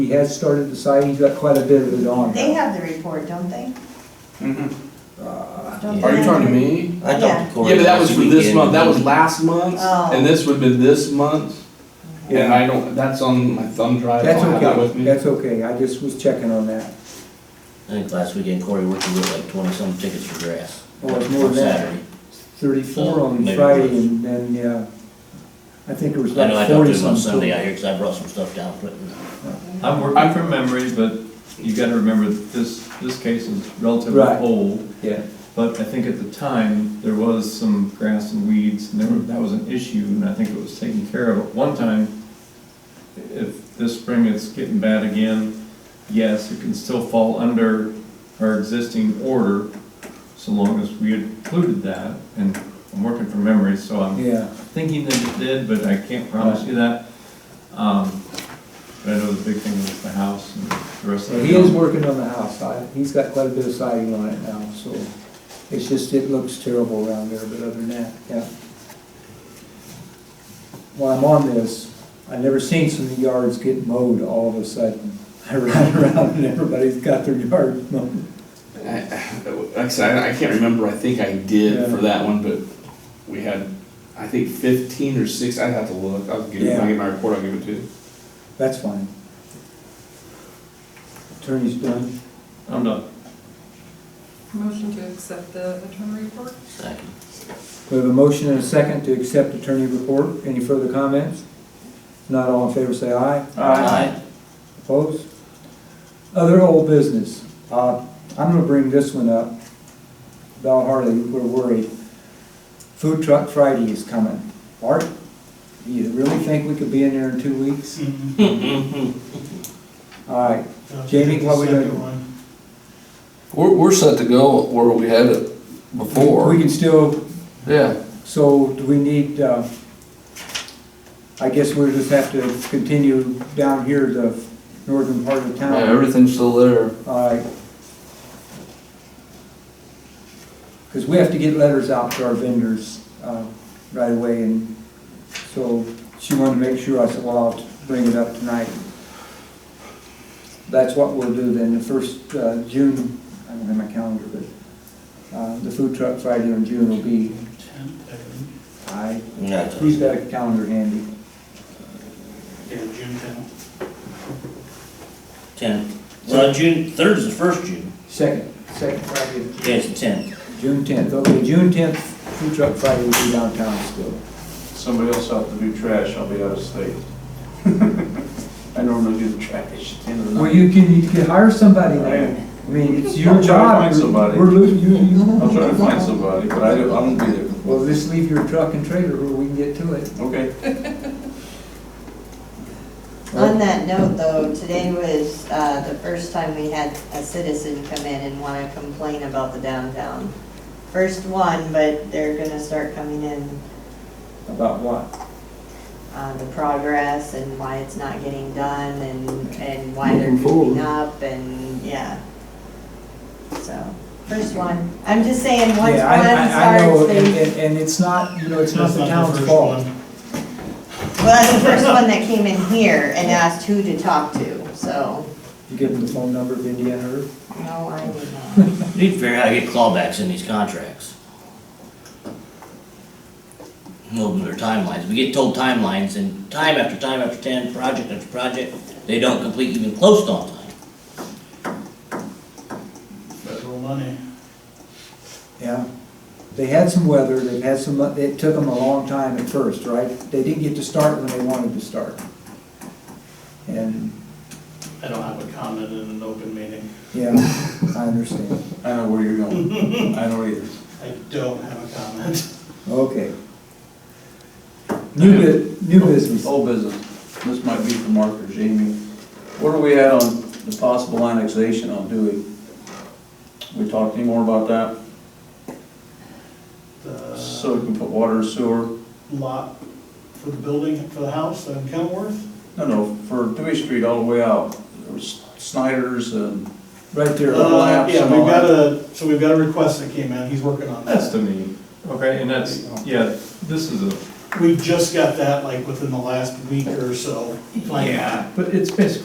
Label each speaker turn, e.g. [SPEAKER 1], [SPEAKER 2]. [SPEAKER 1] He has started the site, he's got quite a bit of it on.
[SPEAKER 2] They have the report, don't they?
[SPEAKER 1] Uh,
[SPEAKER 3] Are you talking to me?
[SPEAKER 4] I talked to
[SPEAKER 3] Mm-hmm.
[SPEAKER 4] Corey.
[SPEAKER 3] Yeah, but that was
[SPEAKER 4] last
[SPEAKER 3] for this
[SPEAKER 4] weekend.
[SPEAKER 3] month, that was last month,
[SPEAKER 2] Oh.
[SPEAKER 3] and this would've been this month. And I don't, that's on my thumb drive, I
[SPEAKER 1] That's
[SPEAKER 3] don't have that with
[SPEAKER 1] okay,
[SPEAKER 3] me.
[SPEAKER 1] that's okay, I just was checking on that.
[SPEAKER 4] I think last weekend Corey worked with like twenty-some tickets for grass.
[SPEAKER 1] Oh, it's more
[SPEAKER 4] On
[SPEAKER 1] than that.
[SPEAKER 4] Saturday.
[SPEAKER 1] Thirty-four
[SPEAKER 4] So,
[SPEAKER 1] on
[SPEAKER 4] maybe
[SPEAKER 1] Friday,
[SPEAKER 4] it was.
[SPEAKER 1] and then, yeah, I think it was
[SPEAKER 4] I know I
[SPEAKER 1] like
[SPEAKER 4] talked to
[SPEAKER 1] forty
[SPEAKER 4] him on Sunday
[SPEAKER 1] something.
[SPEAKER 4] out here, cause I brought some stuff down, but
[SPEAKER 5] I'm working from memory, but you gotta remember that this, this case is relatively
[SPEAKER 1] Right.
[SPEAKER 5] old.
[SPEAKER 1] Yeah.
[SPEAKER 5] But I think at the time, there was some grass and weeds, and there, were- that was an issue, and I think it was taken care of at one time. If this spring it's getting bad again, yes, it can still fall under our existing order, so long as we included that, and I'm working from memory, so I'm
[SPEAKER 1] Yeah,
[SPEAKER 5] thinking that it did, but I can't promise you that. Um, But I know the big thing was the house and the rest of
[SPEAKER 1] so
[SPEAKER 5] it.
[SPEAKER 1] he is working on the house, I, he's got quite a bit of siding on it now, so it's just, it looks terrible around there, but other than that, yeah. While I'm on this, I never seen so many yards get mowed all of a sudden. I ride around and everybody's got their yard mowed.
[SPEAKER 3] I- Like I said, I I can't remember, I think I did for
[SPEAKER 1] Yeah.
[SPEAKER 3] that one, but we had, I think fifteen or six, I'd have to look, I'll give, when I get my report, I'll give it to you.
[SPEAKER 1] That's fine. Attorney's done.
[SPEAKER 5] I'm done.
[SPEAKER 6] Motion to accept the attorney report?
[SPEAKER 4] second.
[SPEAKER 1] We have a motion and a second to accept attorney report. Any further comments? Not all in favor, say aye.
[SPEAKER 4] Aye.
[SPEAKER 1] Opposed? Other old business. Uh, I'm gonna bring this one up. Val Harley, we're worried. Food Truck Friday is coming. Art, do you really think we could be in there in two weeks? All right, Jamie, what we gonna do?
[SPEAKER 7] We're, we're set to go where we had it
[SPEAKER 1] We
[SPEAKER 7] before.
[SPEAKER 1] can still,
[SPEAKER 7] Yeah,
[SPEAKER 1] so do we need, uh, I guess we'll just have to continue down here, the northern part of
[SPEAKER 7] yeah,
[SPEAKER 1] town.
[SPEAKER 7] everything's still there.
[SPEAKER 1] Alright. Because we have to get letters out to our vendors uh, right away, and so she wanted to make sure, I said, well, I'll bring it up tonight. That's what we'll do then, the first uh, June, I don't have my calendar, but uh, the food truck Friday in June will be, I,
[SPEAKER 4] Yeah, it's-
[SPEAKER 1] who's got a calendar handy?
[SPEAKER 8] Yeah, June tenth.
[SPEAKER 4] Ten, well, June, third is the first June,
[SPEAKER 1] Second, second Friday of
[SPEAKER 4] yeah, it's the tenth.
[SPEAKER 1] June 10th, okay, June 10th, food truck Friday will be downtown still.
[SPEAKER 9] Somebody else will have to do trash, I'll be out of state. I normally do the trash at the end of the
[SPEAKER 1] Well,
[SPEAKER 9] night.
[SPEAKER 1] you can, you can hire somebody
[SPEAKER 9] Right.
[SPEAKER 1] then. I mean, it's your
[SPEAKER 9] I'll try to
[SPEAKER 1] job.
[SPEAKER 9] find somebody.
[SPEAKER 1] We're losing, you, you.
[SPEAKER 9] I'll try to find somebody, but I do, I won't be there.
[SPEAKER 1] Well, just leave your truck and trailer where we can get to it.
[SPEAKER 9] Okay.
[SPEAKER 2] On that note, though, today was uh, the first time we had a citizen come in and want to complain about the downtown. First one, but they're gonna start coming in,
[SPEAKER 1] About what?
[SPEAKER 2] uh, the progress and why it's not getting done and, and why they're
[SPEAKER 7] Moving forward.
[SPEAKER 2] keeping up and, yeah. So, first one, I'm just saying, once one
[SPEAKER 1] Yeah, I- I- I know,
[SPEAKER 2] starts,
[SPEAKER 1] and,
[SPEAKER 2] they,
[SPEAKER 1] and- and it's not, you know, it's not
[SPEAKER 8] That's
[SPEAKER 1] the
[SPEAKER 8] not the
[SPEAKER 1] town's
[SPEAKER 8] first
[SPEAKER 1] fault.
[SPEAKER 8] one.
[SPEAKER 2] well, that's the first one that came in here and asked who to talk to, so,
[SPEAKER 1] You give them the phone number of Indiana Earth?
[SPEAKER 2] no, I would not.
[SPEAKER 4] You Need to figure out how to get clawbacks in these contracts. Open their timelines, we get told timelines, and time after time after time, project after project, they don't complete even close to on time.
[SPEAKER 8] Federal money.
[SPEAKER 1] Yeah. They had some weather, they had some, it took them a long time at first, right? They didn't get to start when they wanted to start. And,
[SPEAKER 8] I don't have a comment in an open meeting.
[SPEAKER 1] yeah, I understand.
[SPEAKER 9] I know where you're going. I know either.
[SPEAKER 8] I don't have a comment.
[SPEAKER 1] Okay. New bu, new business.
[SPEAKER 9] Old business. This might be for Mark or Jamie. Where are we at on the possible annexation on Dewey? We talked any more about that? So
[SPEAKER 8] The
[SPEAKER 9] we can put water and sewer?
[SPEAKER 8] lot for the building, for the house on Kenworth,
[SPEAKER 9] No, no, for Dewey Street all the way out. There was Snyder's and
[SPEAKER 1] Right there.
[SPEAKER 9] Uh, overlaps
[SPEAKER 8] Yeah,
[SPEAKER 9] and all
[SPEAKER 8] we've
[SPEAKER 9] that.
[SPEAKER 8] got a, so we've got a request that came in, he's working on
[SPEAKER 5] That's
[SPEAKER 8] that.
[SPEAKER 5] to me. Okay, and that's, yeah, this is a.
[SPEAKER 8] We just got that like within the last week or so. Like,
[SPEAKER 5] But it's basically